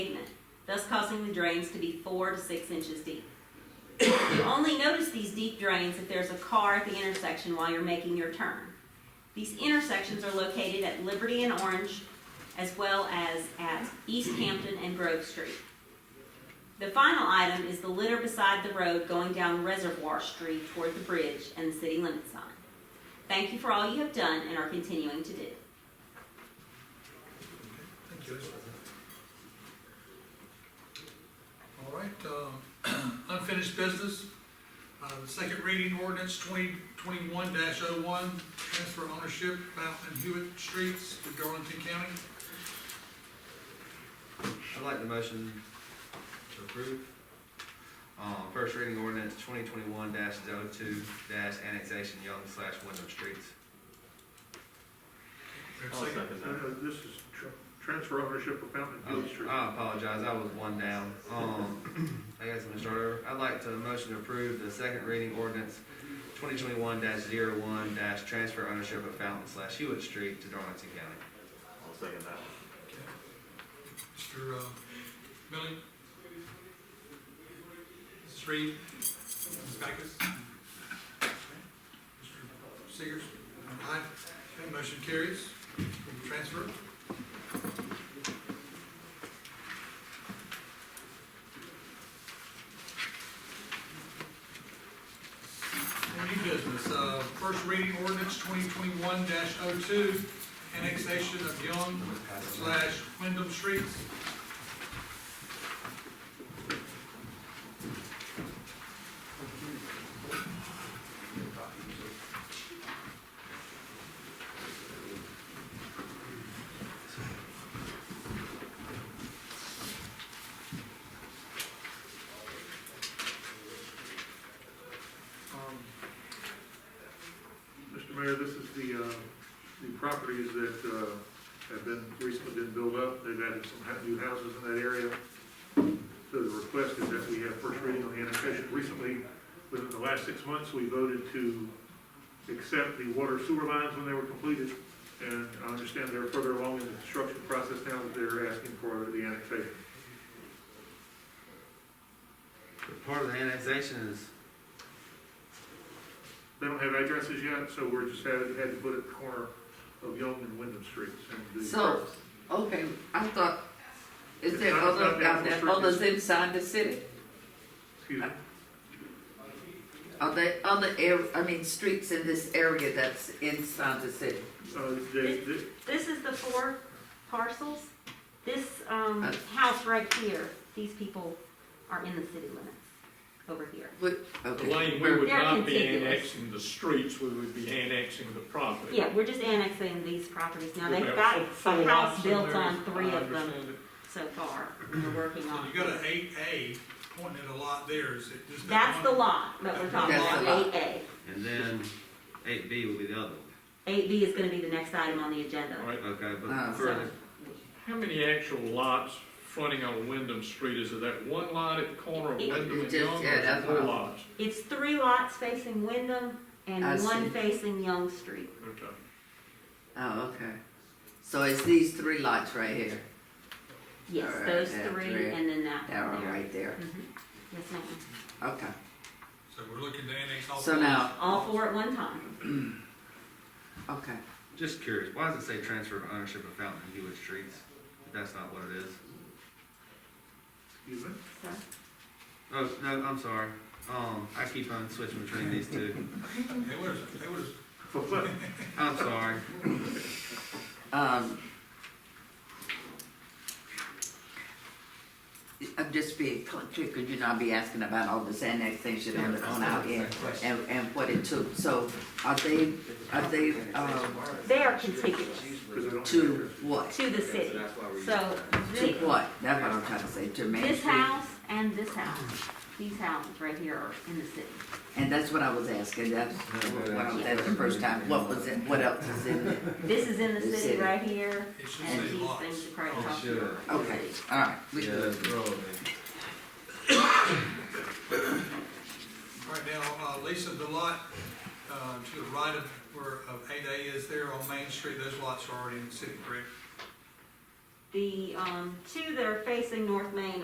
thus causing the drains to be four to six inches deep. You only notice these deep drains if there's a car at the intersection while you're making your turn. These intersections are located at Liberty and Orange, as well as at East Hampton and Grove Street. The final item is the litter beside the road going down Reservoir Street toward the bridge and the city limit sign. Thank you for all you have done and are continuing to do. Thank you. All right, um, unfinished business. Uh, the second reading ordinance twenty twenty-one dash oh one, transfer ownership Fountain and Hewitt Streets to Darlington County. I'd like the motion to approve. Um, first reading ordinance twenty twenty-one 2 annexation Young slash Wyndham Streets. There's a I'll second. second No, that. no, Uh, this is tr- transfer ownership of Fountain Oh, Village Street. I apologize, I was one down. Um, I guess I'm gonna start over. I'd like to motion to approve the second reading ordinance twenty twenty-one one transfer ownership of Fountain slash Hewitt Street to Darlington County. I'll second that. Mr. uh, Billy? Mrs. Reed? Mrs. Backus? Mr. Seegers? Aye. Okay, motion carries. Transfer. New business, uh, first reading ordinance twenty twenty-one 2 annexation of Young slash Wyndham Streets. Um, Mr. Mayor, this is the, uh, the properties that, uh, have been, recently been built up. They've added some ha- new houses in that area. So the request is that we have first reading on the annexation. Recently, within the last six months, we voted to accept the water sewer lines when they were completed. And I understand they're further along in the construction process now that they're asking for the annexation. Part of the annexation is They don't have addresses yet, so we're just had, had to put it at the corner of Young and Wyndham Streets. and the- So, okay, I thought, is It's there not- it's other, not that are there restricted. others inside the city? Excuse me. uh, Are there other air, I mean, streets in this area that's inside the city? Uh, they, they, This is the four parcels. This, um, Uh. house right here, these people are in the city limits over here. Okay, Elaine, we would where- They're not be contiguous. annexing the streets, we would be annexing the property. Yeah, we're just annexing these properties. Now, We'd they've have got full- full a house lots in built there, on three I of them understand it. so far. and We're working So on. you got an eight A pointing at a lot there, is it just? that That's the one? lot that we're talking That's about, the eight lot. A. And then eight B will be the other Eight B is gonna be the next item on the agenda. All right, one, okay, Uh, but for the, how many actual lots fronting on Wyndham Street, is it that one lot at the corner of It- Wyndham and just- Young, or is yeah, it that's four what I- lots? It's three lots facing Wyndham I and one see. facing Young Street. Okay. Oh, okay. So it's these three lots right here, Yes, Alright, those yeah, three three. and then that that one one there. right there, Mhm. Yes, ma'am. okay. So we're looking to annex all. So four. now- All four at one time. Okay, just curious, why does it say transfer of ownership of Fountain and Hewitt Streets? If that's not what it is. excuse me. Oh, no, I'm sorry. Um, I keep on switching between these two. Hey, where's, hey, where's, I'm sorry. um. I'm just being, because you know, I'll be asking about all this annexation on, on our end and, and what it took, so are they, are they, um, They are contiguous Because I don't have to addresses. what? to the city. So To thi- what? That's what I'm trying to say, to Main this Street. house and this house, these houses right here are in the city. And that's what I was asking, that's what I was asking the first time, what was it, what else is in it? This is in the The city city. right here, it should and say these lots. things are right Oh, across sure. here. Okay, all right. we Yeah, good. that's relevant. Right now, uh, Lisa, the lot, uh, to the right of, where, of eight A is there on Main Street, those lots are already in the city, correct? The, um, two that are facing North Main